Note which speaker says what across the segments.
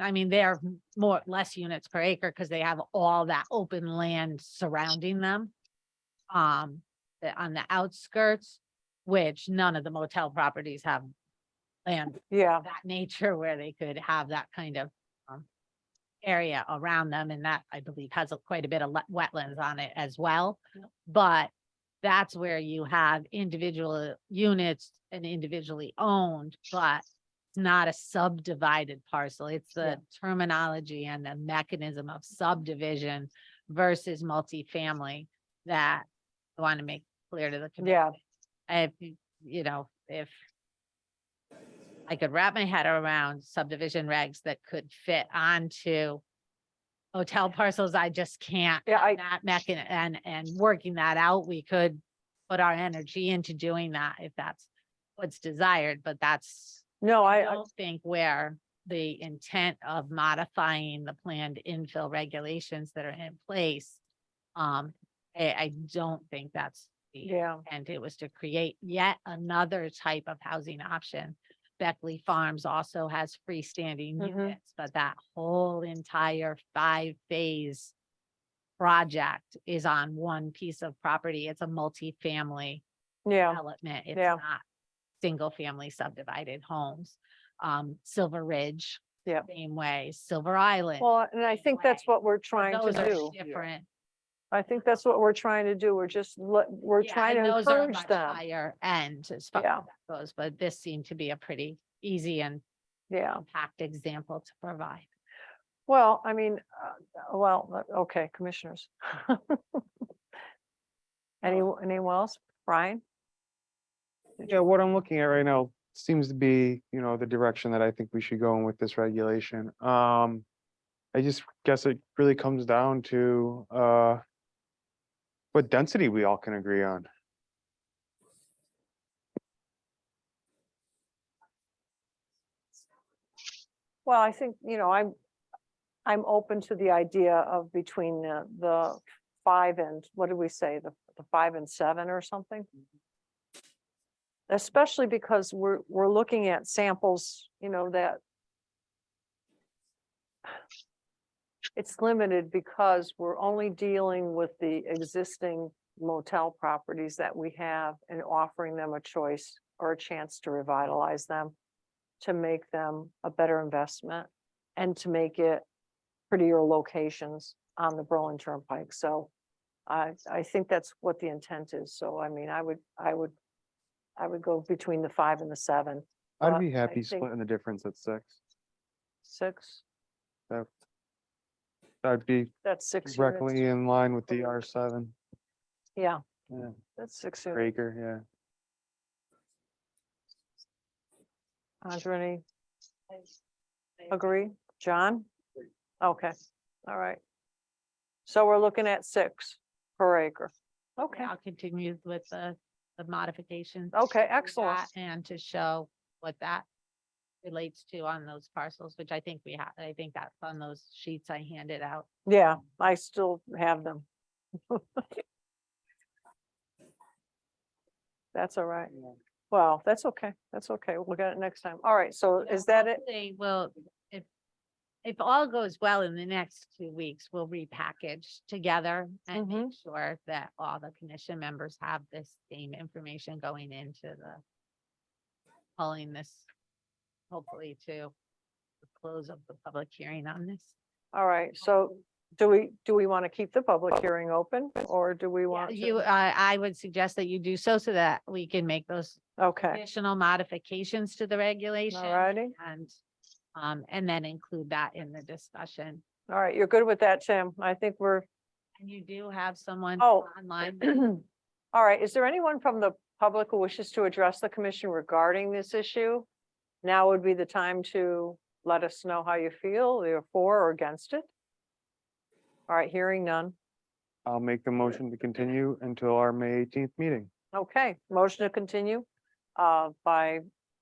Speaker 1: I mean, they are more, less units per acre because they have all that open land surrounding them. Um, the- on the outskirts, which none of the motel properties have land
Speaker 2: Yeah,
Speaker 1: of that nature where they could have that kind of um, area around them. And that, I believe, has a- quite a bit of le- wetlands on it as well. But that's where you have individual units and individually owned, but it's not a subdivided parcel. It's
Speaker 2: Yeah.
Speaker 1: the terminology and the mechanism of subdivision versus multifamily that I want to make clear to the community
Speaker 2: yeah,
Speaker 1: if, y- you know, if I could wrap my head around subdivision regs that could fit onto hotel parcels, I just can't.
Speaker 2: yeah, I,
Speaker 1: That mechan, and, and working that out, we could put our energy into doing that if that's what's desired, but that's,
Speaker 2: no,
Speaker 1: I
Speaker 2: I, I-
Speaker 1: don't think where the intent of modifying the planned infill regulations that are in place. Um, I, I don't think that's the
Speaker 2: yeah,
Speaker 1: and it was to create yet another type of housing option. Beckley Farms also has freestanding
Speaker 2: Mhm.
Speaker 1: units, but that whole entire five-phase project is on one piece of property. It's a multifamily
Speaker 2: yeah,
Speaker 1: development. It's
Speaker 2: Yeah.
Speaker 1: not single-family subdivided homes. Um, Silver Ridge.
Speaker 2: Yep.
Speaker 1: Same way, Silver Island.
Speaker 2: well, and I think that's
Speaker 1: way.
Speaker 2: what we're trying to
Speaker 1: Those are
Speaker 2: do.
Speaker 1: different.
Speaker 2: I think that's what we're trying to do. We're just, let- we're
Speaker 1: Yeah,
Speaker 2: trying
Speaker 1: and
Speaker 2: to
Speaker 1: those are
Speaker 2: encourage
Speaker 1: much
Speaker 2: them.
Speaker 1: Higher end as far
Speaker 2: Yeah.
Speaker 1: as that goes, but this seemed to be a pretty easy and
Speaker 2: Yeah,
Speaker 1: compact example to provide.
Speaker 2: well, I mean, uh, well, uh, okay, commissioners. Any, anyone else? Brian?
Speaker 3: Yeah, what I'm looking at right now seems to be, you know, the direction that I think we should go in with this regulation. Um, I just guess it really comes down to, uh, what density we all can agree on.
Speaker 2: Well, I think, you know, I'm, I'm open to the idea of between the, the five and, what did we say, the, the five and seven or something? Especially because we're, we're looking at samples, you know, that it's limited because we're only dealing with the existing motel properties that we have and offering them a choice or a chance to revitalize them to make them a better investment and to make it prettier locations on the Berlin Turnpike. So I, I think that's what the intent is. So I mean, I would, I would, I would go between the five and the seven, Uh,
Speaker 3: I'd be
Speaker 2: I
Speaker 3: happy
Speaker 2: think-
Speaker 3: splitting the difference at six.
Speaker 2: six,
Speaker 3: That'd be
Speaker 2: that's six
Speaker 3: directly
Speaker 2: units.
Speaker 3: in line with the R seven
Speaker 2: Yeah.
Speaker 3: Yeah.
Speaker 2: That's six
Speaker 3: per
Speaker 2: units.
Speaker 3: acre, yeah.
Speaker 2: Andre, any agree? John? Okay, all right. So we're looking at six per acre. Okay,
Speaker 1: I'll continue with the, the modifications. to
Speaker 2: okay,
Speaker 1: that
Speaker 2: excellent.
Speaker 1: And to show what that relates to on those parcels, which I think we have, I think that's on those sheets I handed out.
Speaker 2: Yeah, I still have them. That's all right.
Speaker 3: Yeah.
Speaker 2: Wow, that's okay. That's okay. We'll get it next time. All right, so
Speaker 1: So
Speaker 2: is that it?
Speaker 1: Hopefully, Well, if, if all goes well in the next two weeks, we'll repackage together and
Speaker 2: Mm-hmm.
Speaker 1: make sure that all the commission members have this same information going into the calling this, hopefully to the close of the public hearing on this.
Speaker 2: All right, so do we, do we want to keep the public hearing open or do we
Speaker 1: Yeah,
Speaker 2: want
Speaker 1: You,
Speaker 2: to?
Speaker 1: I, I would suggest that you do so, so that we can make those
Speaker 2: Okay,
Speaker 1: additional modifications to the regulation.
Speaker 2: all righty.
Speaker 1: And, um, and then include that in the discussion.
Speaker 2: All right, you're good with that, Tim. I think we're,
Speaker 1: And you do have someone
Speaker 2: Oh.
Speaker 1: online. that-
Speaker 2: all right, is there anyone from the public who wishes to address the commission regarding this issue? Now would be the time to let us know how you feel, either for or against it. All right, hearing none.
Speaker 3: I'll make the motion to continue until our May eighteenth meeting.
Speaker 2: Okay, motion to continue uh, by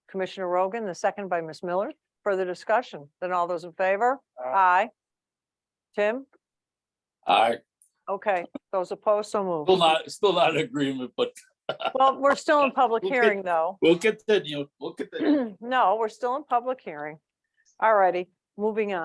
Speaker 2: Commissioner Rogan, the second by Ms. Miller. Further discussion, then all those in favor? Aye. Tim?
Speaker 4: I
Speaker 2: Okay, those opposed, so moved.
Speaker 4: still not, still not in agreement, but
Speaker 2: Well, we're still in public
Speaker 4: We'll get-
Speaker 2: hearing, though.
Speaker 4: we'll get the, we'll get the.
Speaker 2: No, we're still in public hearing. All righty, moving on.